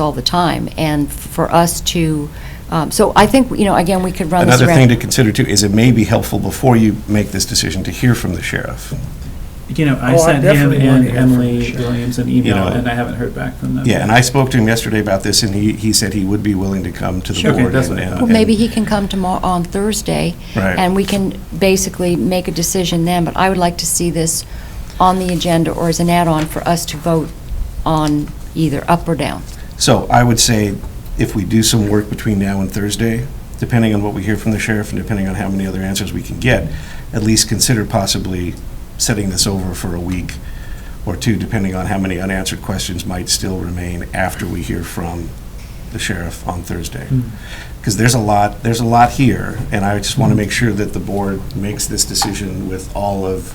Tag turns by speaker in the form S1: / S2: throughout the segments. S1: all the time, and for us to, um, so I think, you know, again, we could run this
S2: Another
S1: around.
S2: thing to consider too is it may be helpful before you make this decision to hear from the sheriff.
S3: You know, I
S4: Oh, I
S3: sent him
S4: definitely wanna
S3: and
S4: hear from the
S3: Emily
S4: sheriff.
S3: Williams an email,
S2: know,
S3: and I haven't heard back from them.
S2: Yeah, and I spoke to him yesterday about this, and he, he said he would be willing to come to the
S3: Sure.
S2: board.
S3: Okay, that's
S2: and-
S3: what I
S2: and-
S3: thought.
S1: Well, maybe he can come tomorrow, on Thursday,
S2: Right.
S1: and we can basically make a decision then, but I would like to see this on the agenda or as an add-on for us to vote on either up or down.
S2: So I would say if we do some work between now and Thursday, depending on what we hear from the sheriff and depending on how many other answers we can get, at least consider possibly setting this over for a week or two, depending on how many unanswered questions might still remain after we hear from the sheriff on Thursday. Because there's a lot, there's a lot here, and I just want to make sure that the board makes this decision with all of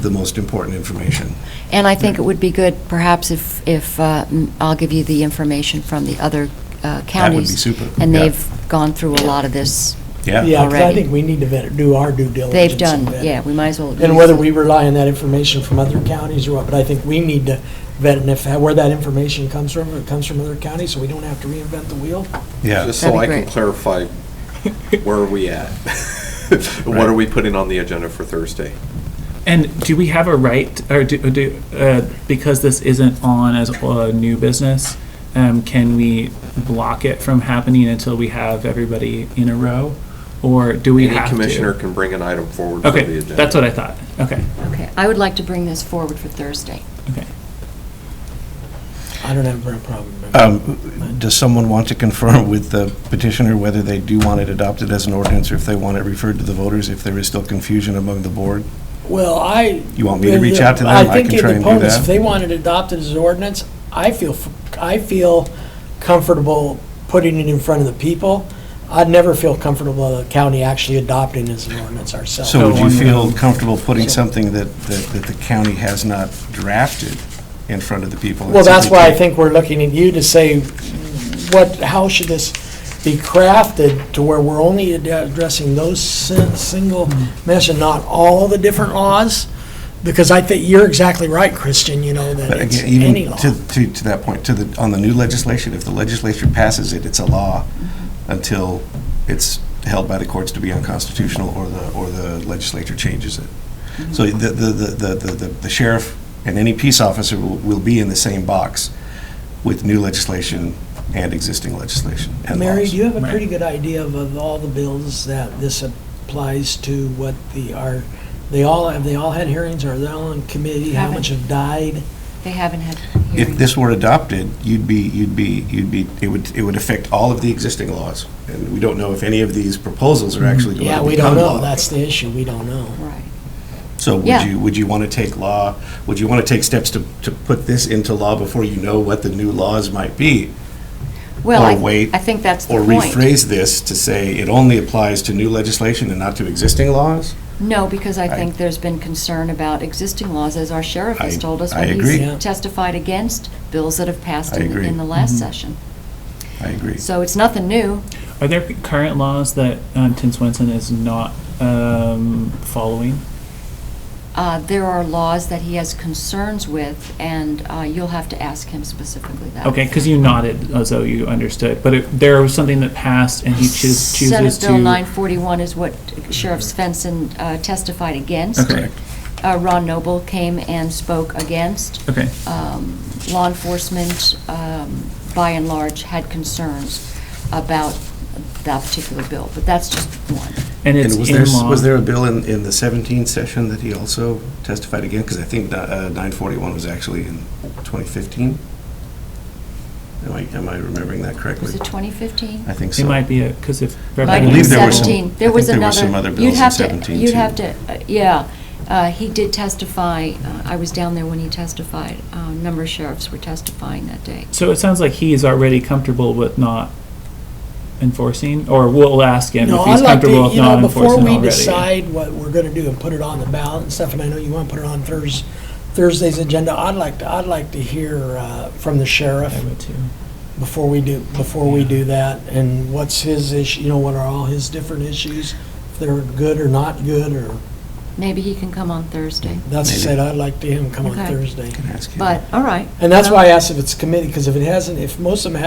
S2: the most important information.
S1: And I think it would be good perhaps if, if, uh, m- I'll give you the information from the other uh, counties.
S2: That would be super.
S1: And
S2: Yeah.
S1: they've gone through a lot of this.
S2: Yeah,
S4: Yeah, because I
S1: already.
S4: think we need to vet- do our due diligence.
S1: They've
S4: and
S1: done,
S4: vet.
S1: yeah, we might as well.
S4: And whether we rely on that information from other counties or what, but I think we need to vet and if, where that information comes from, if it comes from other counties, so we don't have to reinvent the wheel.
S2: yeah.
S5: Just
S1: That'd
S5: so
S1: be
S5: I can
S1: great.
S5: clarify, where are we at? What are we putting on the agenda for Thursday?
S3: And do we have a right, or do, do uh, because this isn't on as a new business, um, can we block it from happening until we have everybody in a row? Or do we have
S5: Any
S3: to?
S5: commissioner can bring an item forward for the
S3: Okay,
S5: agenda.
S3: that's what I thought. Okay,
S1: Okay, I would like to bring this forward for Thursday.
S3: okay.
S4: I don't have a problem with that.
S2: Um, Does someone want to confirm with the petitioner whether they do want it adopted as an ordinance, or if they want it referred to the voters, if there is still confusion among the board?
S4: Well, I.
S2: You want me to reach out to them? I
S4: think
S2: can
S4: in
S2: try
S4: the
S2: and do
S4: opponents,
S2: that.
S4: If they want it adopted as an ordinance, I feel, f- I feel comfortable putting it in front of the people. I'd never feel comfortable with the county actually adopting as an ordinance ourselves.
S2: So would you
S3: So-
S2: feel comfortable putting something that, that that the county has not drafted in front of the people?
S4: Well, that's why I think we're looking at you to say, what, how should this be crafted to where we're only ad- addressing those sin- single
S2: Mm-hmm.
S4: mesh and not all the different laws? Because I think, you're exactly right, Christian, you know, that
S2: But
S4: it's
S2: again,
S4: any
S2: even
S4: law.
S2: to, to, to that point, to the, on the new legislation, if the legislature passes it, it's a law until it's held by the courts to be unconstitutional or the, or the legislature changes it. So
S4: Mm-hmm.
S2: the, the, the, the- the the sheriff and any peace officer will, will be in the same box with new legislation and existing legislation and
S4: Mary,
S2: laws.
S4: do you have a pretty good idea of, of all the bills that this applies to, what the, are, they all, have they all had hearings, are they all in committee, how
S1: Haven't.
S4: much have died?
S1: They haven't had
S2: If
S1: hearings.
S2: this were adopted, you'd be, you'd be, you'd be, it would, it would affect all of the existing laws. And we don't know if any of these proposals are actually going to
S4: Mm-hmm. Yeah,
S2: become law.
S4: we don't know, that's the issue, we don't know.
S1: Right.
S2: So would
S1: Yeah.
S2: you, would you want to take law, would you want to take steps to, to put this into law before you know what the new laws might be?
S1: Well,
S2: Or
S1: I-
S2: wait,
S1: I think that's the
S2: Or
S1: point.
S2: rephrase this to say it only applies to new legislation and not to existing laws?
S1: No, because I
S2: I-
S1: think there's been concern about existing laws, as our sheriff has
S2: I-
S1: told us
S2: I
S1: when
S2: agree.
S4: Yeah.
S1: he's testified against bills that have passed
S2: I
S1: in
S2: agree.
S1: in the last session.
S2: I agree.
S1: So it's nothing new.
S3: Are there current laws that um, Tim Swenson is not um, following?
S1: Uh, There are laws that he has concerns with, and uh, you'll have to ask him specifically that.
S3: Okay, because you nodded as though you understood, but it, there was something that passed and he choos- chooses
S1: Senate
S3: to.
S1: Bill 941 is what Sheriff Svensson uh, testified against.
S3: Okay.
S1: Uh, Ron Noble came and spoke against.
S3: Okay.
S1: um, law enforcement, um, by and large, had concerns about that particular bill, but that's just one.
S3: And it's
S2: And was
S3: in
S2: there,
S3: law.
S2: was there a bill in, in the 17 session that he also testified again? Because I think uh, 941 was actually in 2015? Am I, am I remembering that correctly?
S1: Was it 2015?
S2: I think so.
S3: It might be a because if
S1: Might
S2: I
S1: be
S2: believe there were some-
S1: 17.
S2: I
S1: There
S2: think
S1: was
S2: there
S1: another.
S2: were some other
S1: you'd
S2: bills in
S1: have to-
S2: 17
S1: You'd
S2: too.
S1: have to, uh, yeah, Uh, he did testify, uh, I was down there when he testified, Uh, a number of sheriffs were testifying that day.
S3: so it sounds like he is already comfortable with not enforcing, or we'll ask him
S4: No,
S3: if
S4: I
S3: he's
S4: like to,
S3: comfortable with
S4: you
S3: not
S4: know, before
S3: enforcing
S4: we
S3: already.
S4: decide what we're gonna do and put it on the ballot and stuff, and I know you wanna put it on Thurs, Thursday's agenda, I'd like to, I'd like to hear, uh, from the sheriff
S3: I would too.
S4: before we do, before we do that, and what's his issue, you know, what are all his different issues? If they're good or not good, or
S1: Maybe he can come on Thursday.
S4: That's
S2: Maybe.
S4: said, I'd like to him come on
S1: Okay.
S4: Thursday.
S2: Can I ask you?
S1: But, all right.
S4: And that's
S1: Well-
S4: why I asked if it's committee, because if it hasn't, if most of them haven't